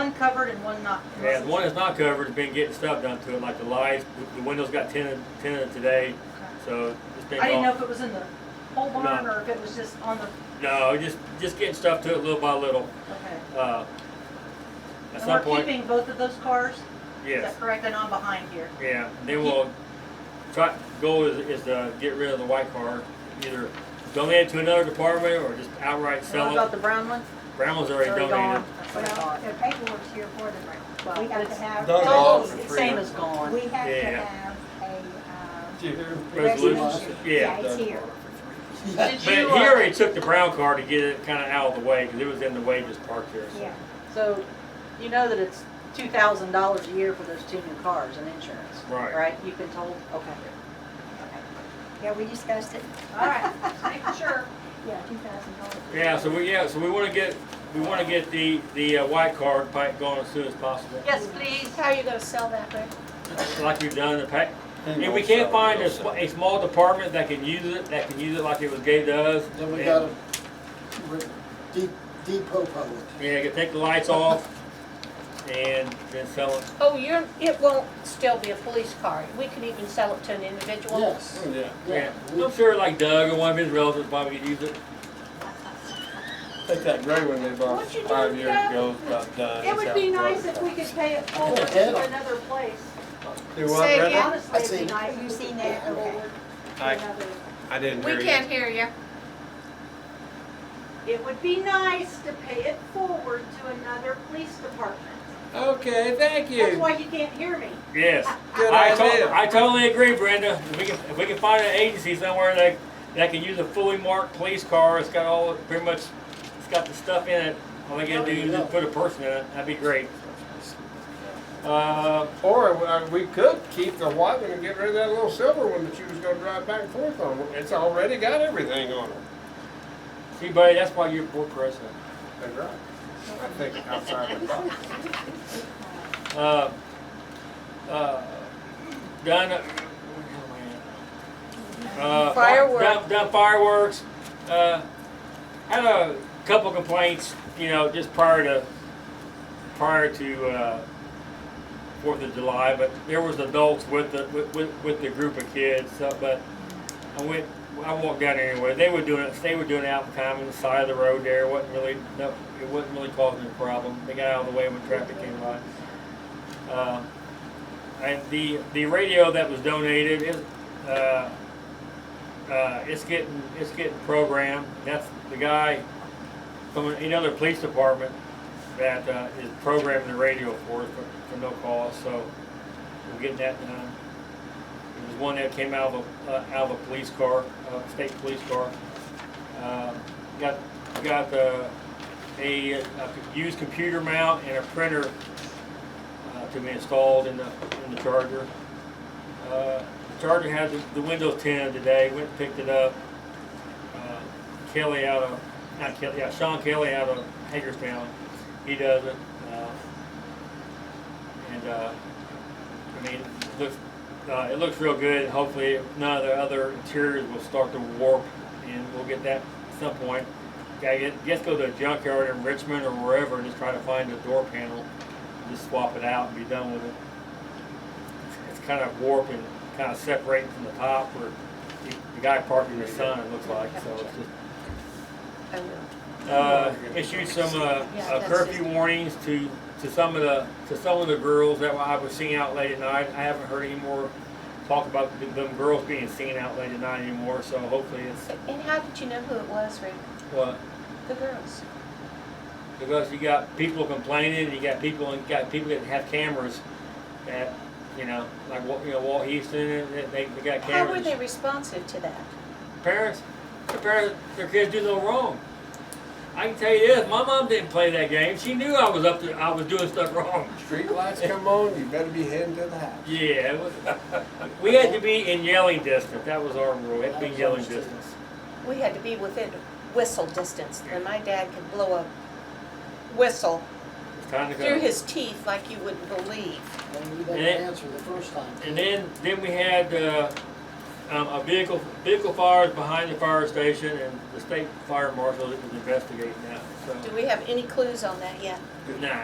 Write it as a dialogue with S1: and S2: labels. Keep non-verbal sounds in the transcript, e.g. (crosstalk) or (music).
S1: covered and one not.
S2: Yeah, the one that's not covered has been getting stuff done to it, like the lights, the- the windows got tinted, tinted today, so it's been.
S1: I didn't know
S2: gone-
S1: if it was in the whole barn or if it was just on the,
S2: No, just, just getting stuff to it little by little,
S1: okay.
S2: uh, at
S1: And
S2: some
S1: we're
S2: point,
S1: keeping both of those cars? Is
S2: yes,
S1: that correct? And I'm behind here.
S2: yeah, then we'll try, goal is, is to get rid of the white car, either donate it to another department or just outright
S1: And What
S2: sell
S1: about
S2: it.
S1: the brown one?
S2: Brown was already
S1: It's already
S2: donated.
S1: gone. That's what I
S3: Well,
S1: thought.
S3: the paperwork's here for them, right?
S1: Well,
S3: We have to
S1: it's-
S3: have.
S4: Those are all for free.
S1: Same as gone.
S3: We have to
S2: Yeah.
S3: have a, um,
S2: Resolution.
S3: resolution.
S2: Yeah.
S3: it's here.
S1: Did
S2: But
S1: you,
S2: he
S1: uh,
S2: already took the brown car to get it kinda out of the way, cause it was in the way just parked there. so.
S3: Yeah,
S1: So, you know that it's two thousand dollars a year for those two new cars and insurance?
S2: Right.
S1: Right, you've been told, okay.
S3: yeah, we discussed it.
S1: All right, just making sure.
S3: Yeah, two thousand dollars.
S2: Yeah, so we, yeah, so we wanna get, we wanna get the, the uh, white card pipe going as soon as possible.
S1: Yes, please.
S3: How are you gonna sell that, Rick?
S2: Like we've done in the pack. If we can't find a, sm- a small department that can use it, that can use it like it was gave to us.
S5: Then we
S2: and-
S5: gotta re- de- depot it.
S2: Yeah, you can take the lights off and then sell it.
S6: Oh, you're, it won't still be a police car. We can even sell it to an individual.
S5: Yes,
S4: Yeah.
S2: Yeah,
S5: yeah.
S2: I'm sure like Doug or one of his relatives probably could use it.
S4: Think that gray one they bought
S6: What you
S4: five
S6: doing,
S4: years
S6: Doug?
S4: ago is about uh, done.
S1: It would be nice if we could pay it forward
S5: Yeah.
S1: to another place.
S4: Do what, Brenda?
S1: Honestly, it'd be
S5: seen-
S1: nice. if
S3: You
S1: we
S3: seen
S1: could pay
S3: that?
S1: it
S3: Okay.
S1: forward to
S4: I-
S1: another-
S4: I didn't hear
S6: We
S4: you.
S6: can't hear you.
S1: It would be nice to pay it forward to another police department.
S4: Okay, thank
S1: That's
S4: you.
S1: why you can't hear me.
S2: Yes.
S4: Good
S2: I to-
S4: idea.
S2: I totally agree, Brenda. If we can, if we can find an agency somewhere that, that can use a fully marked police car, it's got all, pretty much, it's got the stuff in it. All they gotta do is just put a person in it, that'd be great. Uh,
S4: Or uh, we could keep the white one and get rid of that little silver one that you was gonna drive back and forth on. It's already got everything on it.
S2: see buddy, that's why you're board president.
S4: That's right. I think outside the box.
S2: Uh, uh, Done, uh,
S6: Fireworks.
S2: Done, done fireworks. Uh, had a couple complaints, you know, just prior to prior to uh, Fourth of July, but there was adults with the with, with, with the group of kids. So, but I went, I walked down there anyway. They were doing it. They were doing it out kind of on the side of the road there. wasn't really no, it wasn't really causing a problem. They got out of the way when traffic came by. Uh, and the the radio that was donated is. Uh, uh, it's getting it's getting programmed. That's the guy from another police department that uh, is programming the radio for us for, for no cost. So we're getting that done. It was one that came out of a, uh, out of a police car, uh, state police car. Um got got uh, a, a used computer mount and a printer uh, to be installed in the in the charger. Uh, the Charger had the, the Windows 10 today. Went and picked it up. Uh, Kelly out of not Kelly, yeah, Sean Kelly out of Hagerstown. He does it, uh, and uh, I mean, it looks uh, it looks real good. Hopefully, none of the other interiors will start to warp, and we'll get that at some point. Yeah, get, just go to a junkyard in Richmond or wherever, and just try to find a door panel, and just swap it out and be done with it it's kind of warping, kind of separating from the top where the the guy parking the sun, it looks like, so it's just.
S6: I will.
S2: Uh, issued some, uh,
S6: Yeah,
S2: uh,
S6: that's
S2: curfew
S6: just-
S2: warnings to, to some of the, to some of the girls that I was seeing out late at night. I haven't heard any more talk about th- them girls being seen out late at night anymore, so hopefully it's, uh,
S6: And how did you know who it was, Rick?
S2: what?
S6: The girls.
S2: Because you got people complaining, you got people, you got people that have cameras that, you know, like, Wa- you know, Walt Houston, they, they they got cameras.
S6: How were they responsive to that?
S2: parents, their parents, their kids do no wrong. I can tell you this, my mom didn't play that game. She knew I was up to, I was doing stuff wrong.
S4: Street lights come on, you better be heading to the house.
S2: Yeah, it was, (laughs) we had to be in yelling distance. That was our rule. We had to be in yelling distance.
S6: We had to be within whistle distance, and my dad could blow a whistle
S2: It's time to
S6: through
S2: go.
S6: his teeth like you wouldn't believe.
S5: They knew that
S2: And-
S5: answer the first time.
S2: And then, then we had uh, um, a vehicle vehicle fires behind the fire station, and the state fire marshal that was investigating that.
S6: Do
S2: So
S6: we have any clues on that yet?
S2: nah.